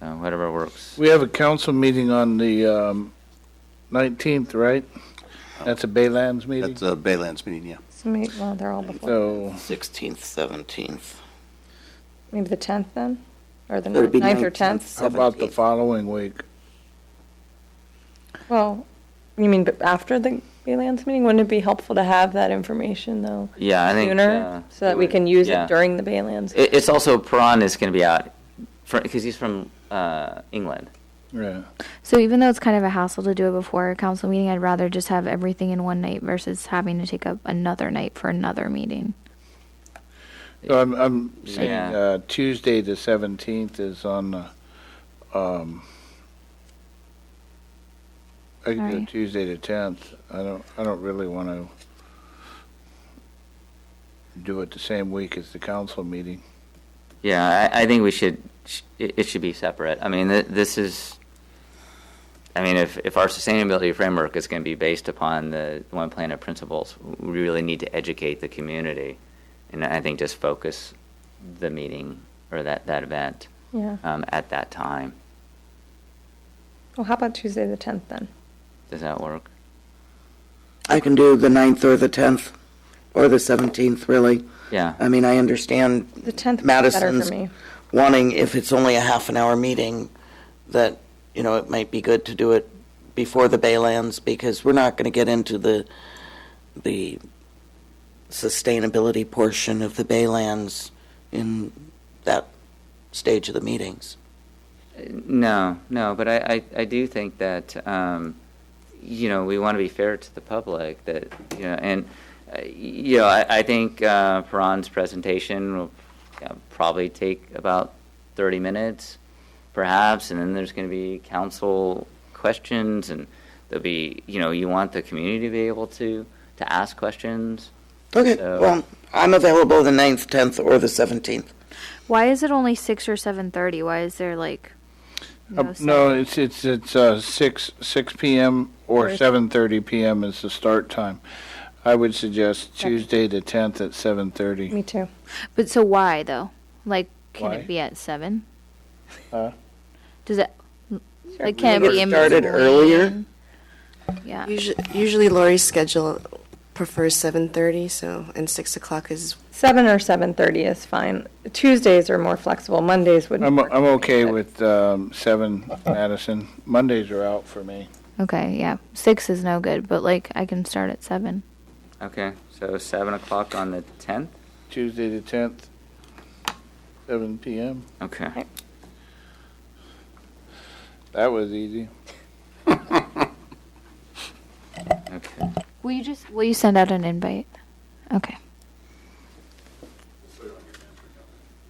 So uh, whatever works. We have a council meeting on the um, 19th, right? That's a Baylands meeting? That's a Baylands meeting, yeah. So maybe, well, they're all before, So, 16th, 17th. maybe the 10th then? Or the It'll be 9th or 19th. 10th? how about the 17th. following week? Well, you mean but after the Baylands meeting? Wouldn't it be helpful to have that information though? Yeah, I think. uh, Sooner, so that we would- can use yeah. it during the Baylands? It, it's also Prawn is going to be out because he's from uh, England. Yeah. So even though it's kind of a hassle to do it before a council meeting, I'd rather just have everything in one night versus having to take up another night for another meeting. So I'm, I'm saying Yeah. uh, Tuesday, the 17th is on, the, um, I can do Sorry. Tuesday the 10th. I don't, I don't really want to do it the same week as the council meeting. Yeah, I, I think we should. sh- It it should be separate. I mean, th- this is. I mean, if if our sustainability framework is going to be based upon the One Planet principles, we really need to educate the community, and I think just focus the meeting or that that event Yeah. um, at that time. Well, how about Tuesday, the 10th then? Does that work? I can do the 9th or the 10th, or the 17th, really. Yeah. I mean, I understand The 10th would be better Madison's for me. wanting, if it's only a half an hour meeting, that, you know, it might be good to do it before the Baylands, because we're not going to get into the, the sustainability portion of the Baylands in that stage of the meetings. No, no, but I, I, I do think that, um, you know, we want to be fair to the public that, you know, and, uh, you know, I, I think uh, Perron's presentation will uh, probably take about 30 minutes, perhaps, and then there's going to be council questions, and there'll be, you know, you want the community to be able to, to ask questions. Okay, So- well, I'm available the 9th, 10th, or the 17th. Why is it only six or seven thirty? Why is there like no, Uh, seven- No, it's, it's, it's, uh, six, six PM or Or- seven thirty PM is the start time. I would suggest Tuesday the tenth at seven thirty. Me too. But so why though? Like, can Why? it be at seven? Huh? Does it? Like, can it Or be in started earlier? between? Yeah. Usually, usually Lori's schedule prefers seven thirty, so and six o'clock is 7 or 7:30 is fine. Tuesdays are more flexible. Mondays wouldn't I'm, work I'm for me, okay but- with, um, seven Madison. Mondays are out for me. Okay. Yeah. Six is no good, but like I can start at seven. Okay, so 7 o'clock on the 10th? Tuesday the tenth, seven PM. Okay. That was easy. Okay. Will you just? Will you send out an invite? Okay.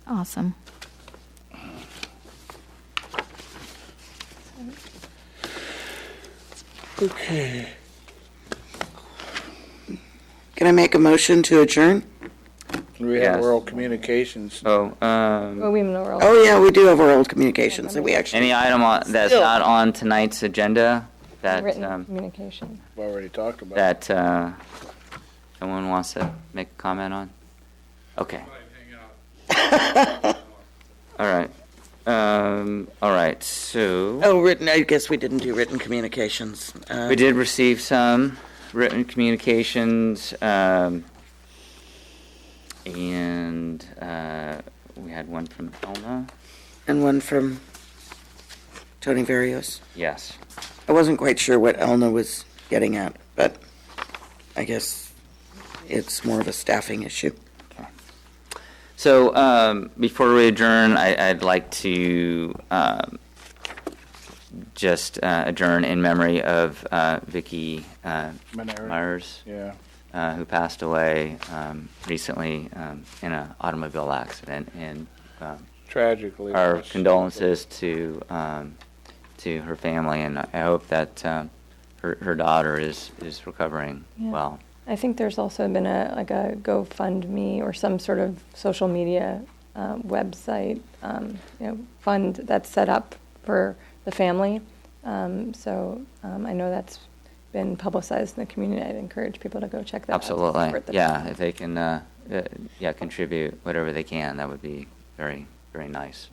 Awesome. Can I make a motion to adjourn? We have Yes. oral communications. So, um. Well, we have no real- Oh, yeah, we do have our old communications that we actually. Any item on, that's not on tonight's agenda that, written um, communication. We've already talked about. it. that, uh, someone wants to make a comment on? Okay. All right. Um, all right, so, Oh, written, I guess we didn't do written communications. Uh, we did receive some written communications, um, and, uh, we had one from Elma. And one from Tony Varios. Yes. I wasn't quite sure what Elna was getting at, but I guess it's more of a staffing issue. So um, before we adjourn, I, I'd like to um, just uh, adjourn in memory of uh, Vicky uh, Manera. Myers, Yeah. uh, who passed away um, recently um, in an automobile accident. And um, Tragically. our condolences to um, to her family, and I hope that um, her, her daughter is is recovering Yeah. well. I think there's also been a, like a GoFundMe or some sort of social media uh, website, um, you know, fund that's set up for the family. Um, So um, I know that's been publicized in the community. I'd encourage people to go check that out. to Absolutely, support the yeah. family. If they can, uh, uh, yeah, contribute whatever they can, that would be very, very nice.